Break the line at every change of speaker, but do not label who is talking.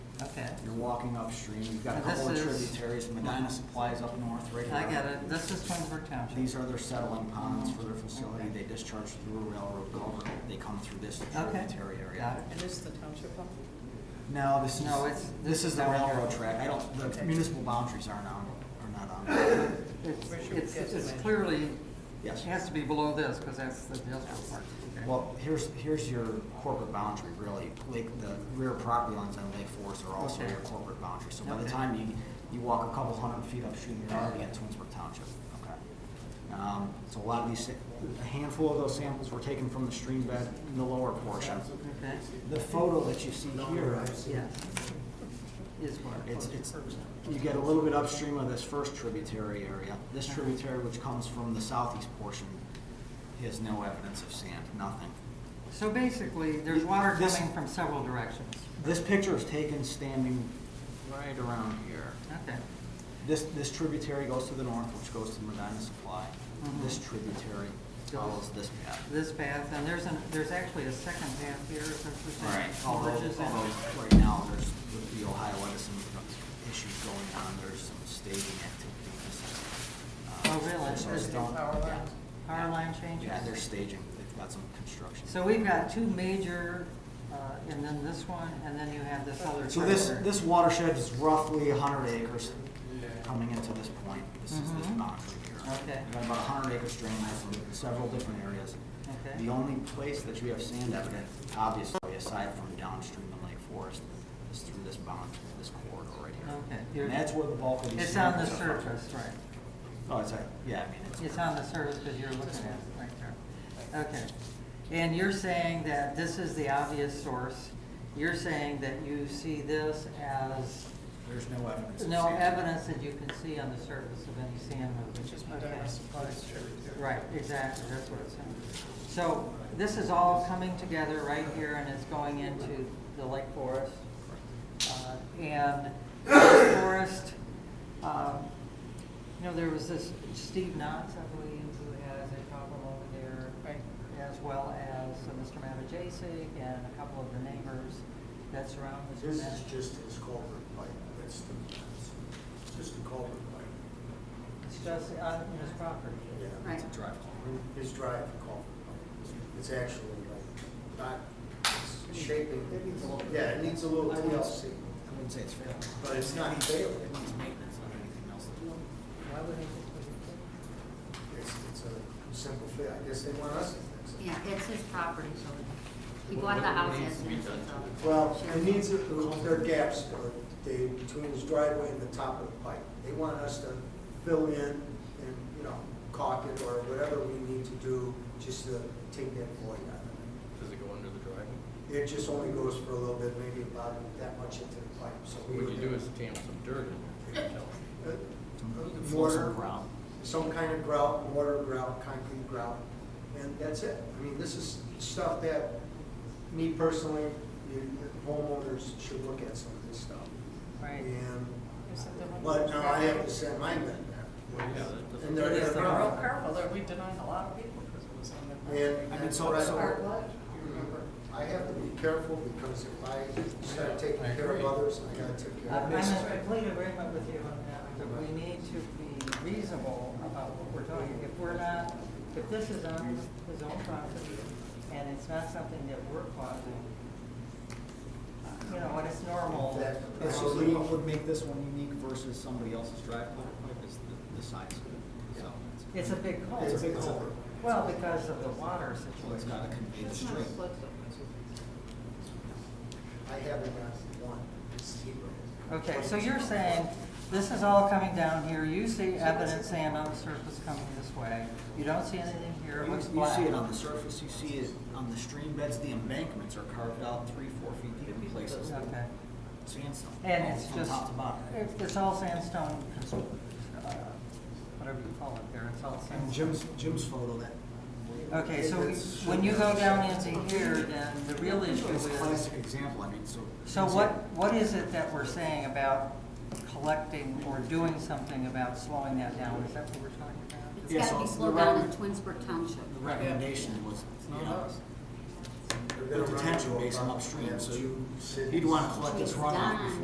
Okay,
You're walking upstream, you've got a
And this
couple of
is-
tributaries, Medina Supplies up north, right here.
I get it. This is Twinsburg Township.
These are their settling ponds for their facility, they discharge through a railroad culvert, they come through this
Okay.
tributary
Got
area.
it.
And this is the township pump?
No, this
No, it's-
is, this is the
down here.
railroad track, I don't, the
Okay.
municipal boundaries aren't on, are not on.
It's,
Richard
it's-
gets
it's
it.
clearly, it
Yes.
has to be below this, because that's the industrial park. Okay.
Well, here's, here's your corporate boundary, really. Lake, the rear property lines on Lake Forest are also
Okay.
your corporate boundary. So by the
Okay.
time you, you walk a couple hundred feet upstream, you're already at Twinsburg Township. Okay. Um, So a lot of these, a handful of those samples were taken from the stream bed in the lower portion.
Okay,
The photo that you see here,
yes. Is where.
it's, it's, you get a little bit upstream of this first tributary area. This
Uh-huh.
tributary, which comes from the southeast portion, has no evidence of sand, nothing.
So basically, there's water
This-
coming from several directions.
This picture is taken standing right around here.
Okay,
This, this tributary goes to the north, which goes to Medina Supply.
Mhm.
This tributary follows this path.
this path, and there's an, there's actually a second path here, is that what you're saying?
Although,
Merges in.
although right now, there's, with the Ohio Edison issues going on, there's some staging activity. This is, uh,
Oh, really?
there's some
There's
stone-
power lines.
Power line changes?
Yeah, they're staging. They've got some construction.
So we've got two major, uh, and then this one, and then you have this other.
So this,
corridor.
this watershed is roughly hundred acres coming into this point. This is this
Mhm.
boundary here.
Okay.
We've got about hundred acres drained from several different areas.
Okay.
The only place that you have sand evident, obviously, aside from downstream in Lake Forest, is through this bound, this corridor right
Okay.
here. And that's where the bulk of these.
It's on the
samples are from.
surface, right.
Oh, it's, a- yeah, I mean, it's.
It's on the surface because you're looking at it right there. Okay. And you're saying that this is the obvious source. You're saying that you see this as
There's no evidence. of
no
sand.
evidence that you can see on the surface of any sand movement.
Which is Medina
Okay.
Supplies tributary.
Right, exactly, that's what it's saying. So this is all coming together right here and it's going into the Lake Forest. Uh, And Lake Forest, um, you know, there was this Steve Knotts, I believe, who has a problem over there.
Right.
As well as uh, Mr. Matajasic and a couple of the neighbors that surround this.
This is just his culvert pipe, that's the, it's just the culvert pipe.
It's just on his property.
Yeah,
It's a drive culvert.
His drive culvert pipe. It's actually like not it's shaping. Yeah, it needs a little TLC,
I wouldn't say it's failing.
but it's not failing.
It needs maintenance on anything else.
Why would they just put it
It's, it's a simple fit. I guess they want us to fix it.
Yeah, it's his property, so he bought the house as is, so.
Well, it needs, a- there are gaps or they, between his driveway and the top of the pipe. They want us to fill in and, you know, caulk it or whatever we need to do just to take that void out of it.
Does it go under the driveway?
It just only goes for a little bit, maybe about that much into the pipe, so. we
What
would-
you do is tam some dirt in there.
Uh,
It flows
Mortar,
around.
some kind of grout, mortar grout, concrete grout, and that's it. I mean, this is stuff that, me personally, you- homeowners should look at some of this stuff.
Right.
And,
in? Is it the one
but
that's
now I have
driveway?
to send my men
Well, yeah,
back.
that doesn't-
And they're,
It
they're
is the
Real
grout.
careful, there, we denied a lot of people because it was on their property.
And,
I mean,
and
so-
so I,
so-
remember, I have to be careful because if I start taking
I
care of
agree.
others, I gotta take care of
Uh, I'm I'm
myself.
in complete agreement with you on that, but we need to be reasonable about what we're doing. If we're not, if this is on his own property and it's not something that we're causing, you know, and it's normal. um,
Exactly.
And so then what would make this one unique versus somebody else's drive culvert pipe is the, the size of it, so.
It's a big hole.
It's a big culvert.
Well, because of the water
So it's
situation.
gotta convey the
That's not a
stream.
split though.
I haven't got one, it's zero.
Okay, so you're saying this is all coming down here. You see evidence sand on the surface coming this way. You don't see anything here. It
You,
looks
you
black.
see it on the surface, you see it on the stream beds, the embankments are carved out three, four feet deep in places.
Okay.
Sandstone.
And it's
from
just,
Top to bottom.
it's- it's all sandstone, cons- uh, whatever you call it there, it's all
And
sandstone.
Jim's, Jim's photo that.
Okay, so we-
It's-
when you go down into here, then the real issue
It's a
is,
classic example, I mean, so.
so what, what is it that we're saying about collecting or doing something about slowing that down? Is that what we're talking about?
It's
Yeah,
gotta be
so
slowed
the
down in
record-
Twinsburg Township.
The recommendation was, you know,
They're
the
gonna run
detention
into a
basin
problem.
upstream, so
Two
you,
cities.
you'd wanna collect this
It's
runoff
done.
before